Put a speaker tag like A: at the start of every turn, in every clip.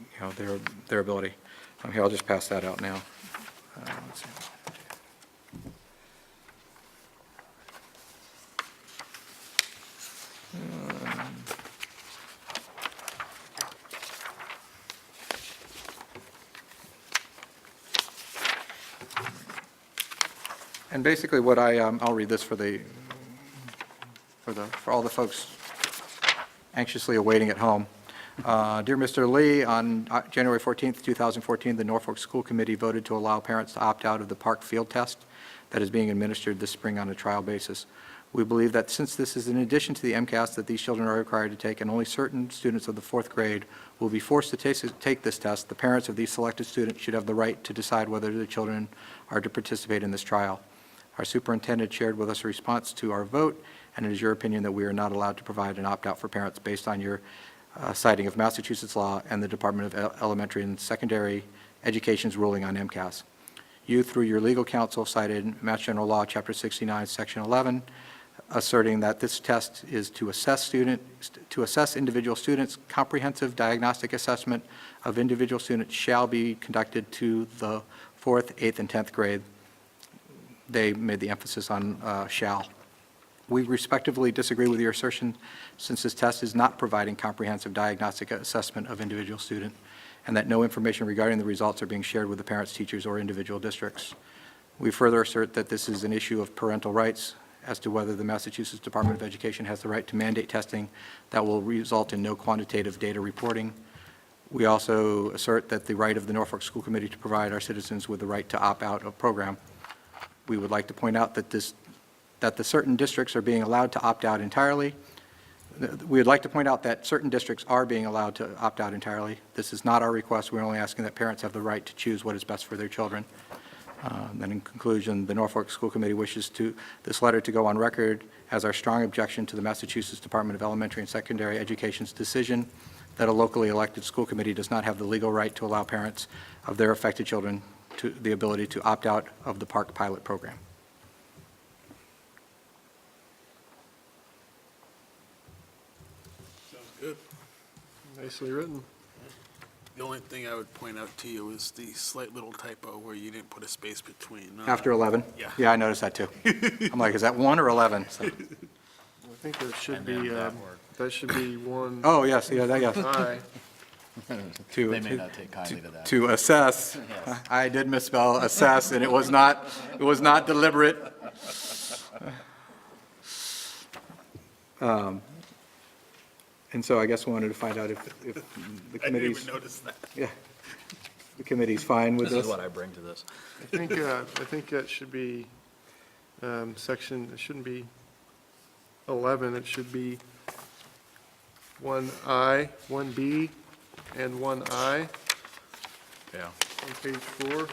A: you know, their, their ability. Um, Here, I'll just pass that out now. Uh, let's see. And basically what I, um, I'll read this for the, for the, for all the folks anxiously awaiting at home. Uh, Dear Mr. Lee, on uh, January 14th, 2014, the Norfolk School Committee voted to allow parents to opt out of the park field test that is being administered this spring on a trial basis. We believe that since this is in addition to the MCAS that these children are required to take, and only certain students of the fourth grade will be forced to tas- take this test, the parents of these selected students should have the right to decide whether the children are to participate in this trial. Our superintendent shared with us a response to our vote, and it is your opinion that we are not allowed to provide an opt-out for parents based on your uh, citing of Massachusetts law and the Department of E- Elementary and Secondary Education's ruling on MCAS. You, through your legal counsel, cited Mass General Law, Chapter 69, Section 11, asserting that this test is to assess student, to assess individual students. Comprehensive diagnostic assessment of individual students shall be conducted to the fourth, eighth, and 10th grade they made the emphasis on uh, shall. We respectively disagree with your assertion, since this test is not providing comprehensive diagnostic assessment of individual student, and that no information regarding the results are being shared with the parents, teachers, or individual districts. We further assert that this is an issue of parental rights as to whether the Massachusetts Department of Education has the right to mandate testing that will result in no quantitative data reporting. We also assert that the right of the Norfolk School Committee to provide our citizens with the right to opt out of program we would like to point out that this, that the certain districts are being allowed to opt out entirely. We would like to point out that certain districts are being allowed to opt out entirely. This is not our request. We're only asking that parents have the right to choose what is best for their children. Uh, Then in conclusion, the Norfolk School Committee wishes to, this letter to go on record as our strong objection to the Massachusetts Department of Elementary and Secondary Education's decision that a locally elected school committee does not have the legal right to allow parents of their affected children to, the ability to opt out of the park pilot program.
B: Nicely written.
C: The only thing I would point out to you is the slight little typo where you didn't put a space between. uh,
A: After 11?
C: Yeah.
A: Yeah, I noticed that too. I'm like, is that one or 11? So-
B: I think that should be, um, that should be one
A: Oh, yes, yeah, that, yes.
B: I.
A: To-
D: They may
A: to-
D: not take kindly to that.
A: To assess, I did misspell assess, and it was not, it was not deliberate. Um, And so I guess we wanted to find out if, if the
C: I didn't even
A: committee's,
C: notice that.
A: yeah, the committee's fine with
D: This
A: this.
D: is what I bring to this.
B: I think, uh, I think that should be um, section, it shouldn't be 11, it should be 1I, 1B, and 1I
D: Yeah.
B: on page four.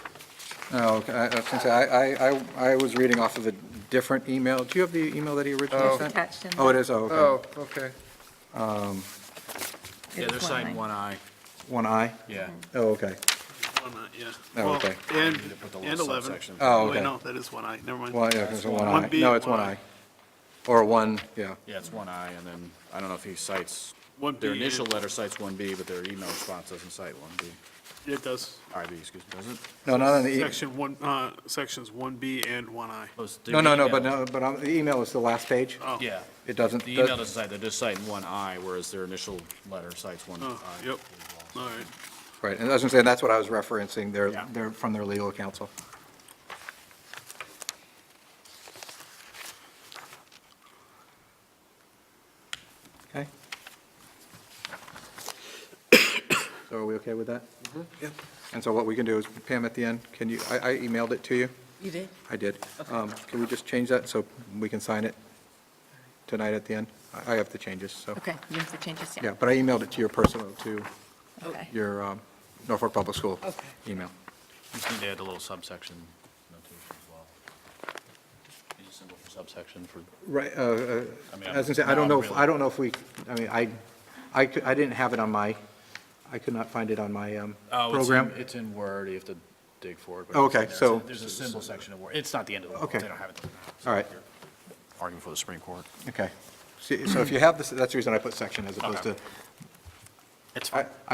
A: Oh, okay, I, I was gonna say, I, I- I, I was reading off of a different email. Do you have the email that he originally
B: Oh.
A: sent?
E: Attached in
A: Oh, it is, oh, okay.
B: Oh, okay.
D: Yeah, they're citing one eye.
A: One I?
D: Yeah.
A: Oh, okay.
C: One eye, yeah.
A: Oh,
C: Well,
A: okay.
C: And,
D: to put the little
C: and 11.
D: subsection.
A: Oh,
C: Wait,
A: okay.
C: No, that is one eye, never mind.
A: Well, yeah, it's a one
C: One
A: I.
C: B,
A: No, it's one
C: one
A: I.
C: I.
A: Or one, yeah.
D: Yeah, it's one eye, and then, I don't know if he cites,
C: One
D: their
C: B and-
D: initial letter cites one B, but their email response doesn't cite one B.
C: It does.
D: IB, excuse me, does it?
A: No, not on the, e-
C: Section one, uh, sections 1B and 1I.
A: no, no, no, but no, but on, the email is the last page.
C: Oh.
D: Yeah.
A: It doesn't,
D: The email doesn't cite, they're just citing one eye, whereas their initial letter cites one eye.
C: Oh, yep, all right.
A: right, and as I'm saying, that's what I was referencing, they're,
D: Yeah.
A: they're from their legal counsel. Okay? So are we okay with that?
E: Mm-hmm.
A: Yep. And so what we can do is, Pam, at the end, can you, I, I emailed it to you.
E: You did?
A: I did. Um, Can we just change that so we can sign it tonight at the end? I- I have the changes, so.
E: Okay, you have the changes, yeah.
A: Yeah, but I emailed it to your personal, to
E: Okay.
A: your um, Norfolk Public School
E: Okay.
A: email.
D: Just need to add a little subsection notation as well. Use a symbol for subsection for,
A: Right, uh, uh,
D: I mean,
A: as I said, I
D: I'm-
A: don't
D: now
A: know,
D: I'm
A: if-
D: really-
A: I don't know if we, I mean, I, I cou- I didn't have it on my, I could not find it on my um,
D: Oh, it's
A: program.
D: in, it's in Word, you have to dig for it. but
A: Okay,
D: it's in
A: so-
D: there. There's a symbol section of Word, it's not the end of the world,
A: Okay.
D: they don't have it.
A: All right,
D: Arguing for the Supreme Court.
A: okay. See, So if you have this, that's the reason I put section as opposed
D: Okay.
A: to,
D: It's
A: I,